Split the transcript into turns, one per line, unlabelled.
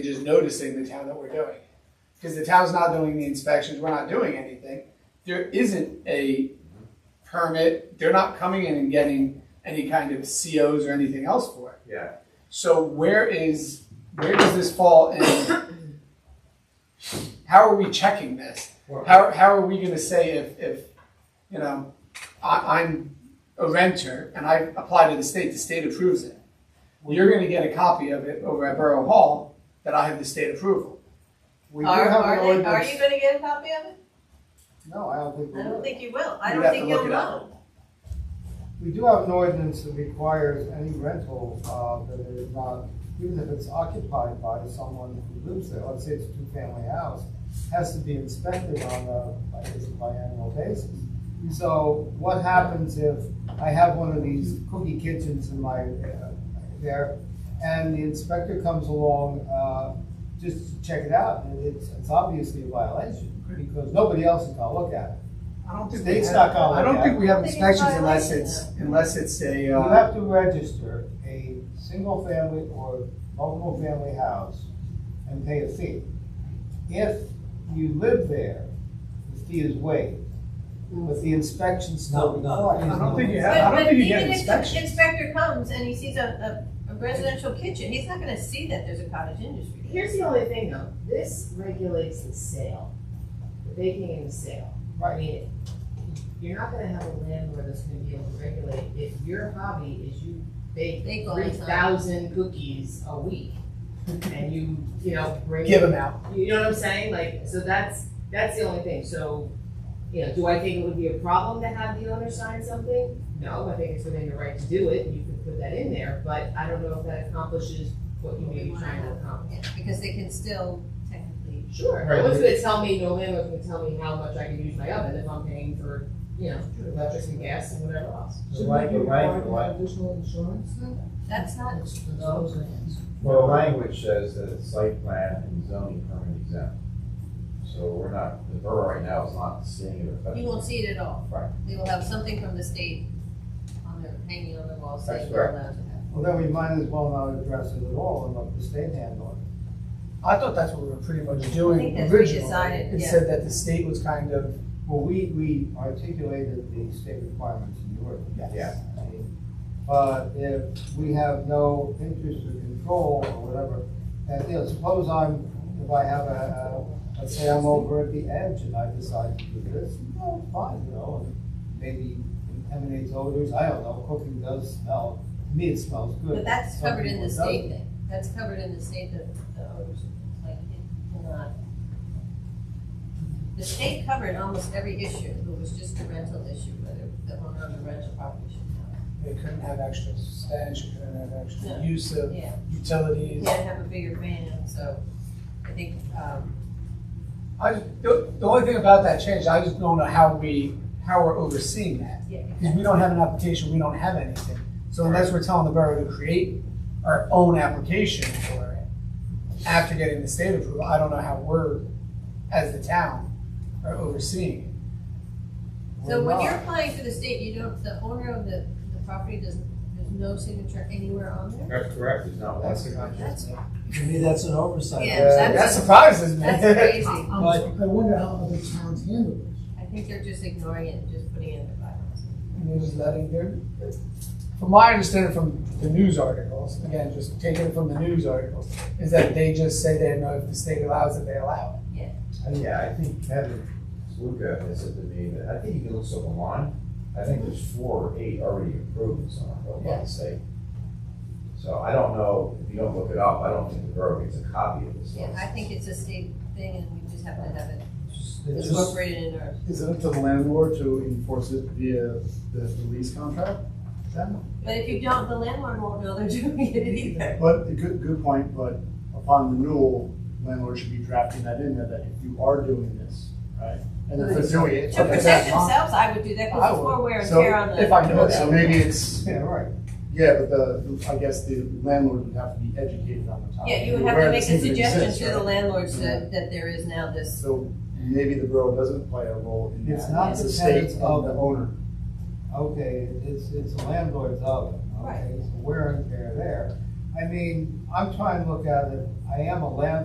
just noticing the town that we're doing. Because the town's not doing the inspections, we're not doing anything. There isn't a permit, they're not coming in and getting any kind of COs or anything else for it.
Yeah,
So where is, where does this fall in? How are we checking this?
Well-
How, how are we gonna say if, if, you know, I, I'm a renter and I apply to the state, the state approves it? Well, you're gonna get a copy of it over at Borough Hall that I have the state approval.
We do
Are,
have an
are, they, are
ordinance.
you gonna get a copy of it?
No, I don't think we
I don't
do.
think you will. I
You'd have
don't
to
think
look
you'll
it up.
know.
We do have an ordinance that requires any rental, uh, that is not, even if it's occupied by someone who lives there, let's say it's a two-family house, has to be inspected on a, I guess, biannual basis. So what happens if I have one of these cookie kitchens in my, uh, there, and the inspector comes along, uh, just to check it out, and it's, it's obviously a violation, because nobody else is gonna look at it.
I don't
think we State's have- not gonna
I don't
look
think
at
we have
I think it's
inspections unless
violation.
it's, unless it's a,
You
uh,
have to register a single family or multiple family house and pay a fee. If you live there, the fee is waived, but the inspection still
No, no.
required.
I don't think you
But,
have- I don't
but
think you get
even if the
inspections.
inspector comes and he sees a, a, a residential kitchen, he's not gonna see that there's a cottage industry. there.
Here's the only thing though, this regulates the sale, the baking and the sale. I
Right,
mean, you're not gonna have a landlord that's gonna be able to regulate if your hobby is you bake
Bake all the
three
time.
thousand cookies a week. And you, you know, bring.
give them out.
You know what I'm saying? Like, so that's, that's the only thing. So, you know, do I think it would be a problem to have the owner sign something? No, I think it's within your right to do it and you can put that in there, but I don't know if that accomplishes what you may be trying to accomplish.
Yeah, Because they can still technically,
Sure,
Right.
no one's gonna tell me, no landlord's gonna tell me how much I can use my oven if I'm paying for, you know, electric and gas and whatever else.
So why, the language, why-
Additional insurance?
that's not,
well, the language says that it's site plan and zoning permit exempt. So we're not, the borough right now is not seeing it
you won't
affected.
see it at all.
Right.
They will have something from the state on their, hanging on their wall saying
That's
you're
correct.
allowed to have.
Well, then we might as well not address it at all and let the state handle it.
I thought that's what we were pretty much
I
doing
think that's
originally.
redecided,
It
yeah.
said that the state was kind of
Well, we, we articulated the state requirements in the ordinance.
Yeah.
I mean, But if we have no interest or control or whatever, and, you know, suppose I'm, if I have a, a- let's say I'm over at the edge and I decide to do this, well, fine, you know, and maybe contaminates odors, I don't know, cooking does smell, to me it smells good.
But that's
Some
covered in
people
the
it
state
doesn't.
thing, that's covered in the state that the owners, like, it cannot. The state covered almost every issue, it was just the rental issue, whether the owner of the rental property should
They couldn't have extra stench, you couldn't have extra
Yeah.
use of
have. Yeah, you
utilities.
gotta have a bigger van, so I think, um,
I, just- the, the only thing about that change, I just don't know how we, how we're overseeing that.
yeah.
Because we don't have an application, we don't have anything. So unless we're telling the borough to create our own application for it, after getting the state approval, I don't know how we're, as the town, are overseeing it.
So
We're
when
not.
you're applying for the state, you don't, the owner of the, the property doesn't, there's no signature anywhere on there?
That's correct, there's not one
That's the
signature.
contract.
That's,
to me, that's an oversight.
Yeah,
that's-
That surprises me.
that's crazy, I
But
I wonder how other towns handle this.
think they're just ignoring it and just putting it in their bylaws.
And they're just letting their, from my understanding from the news articles, again, just taking it from the news articles, is that they just say they know if the state allows it, they allow it.
And yeah, I think Kevin Luca has said to me that, I think you can look up online, I think there's four or eight already approved in some of
Yeah.
the state. So I don't know, if you don't look it up, I don't think the borough gets a copy of this.
Yeah,
one.
I think it's a state thing and we just have to have it
it's just,
incorporated in our,
Is it up to the landlord to enforce it via the the lease contract? Then-
but if you don't, the landlord won't know they're doing it either.
But, a good, good point, but upon renewal, landlord should be drafting that in there, that if you are doing this, right? And if they're doing it.
To protect themselves, I would do that
I
because it's
would.
more wear and
So,
tear on
If
the,
I know
So
that.
maybe it's,
Yeah, right.
yeah, but the, I guess the landlord would have to be educated on the topic.
yeah, you would have
Where
to
it
make a
seems it
suggestion
exists,
to the
right?
landlords that, that there is now this.
So maybe the borough doesn't play a role in that.
It's not
It's
the
the state
tenants
and
of-
the owner.
okay, it's, it's a landlord's oven, okay,
Right.
so wear and tear there. I I mean, I'm trying to look at it, I am a landlord.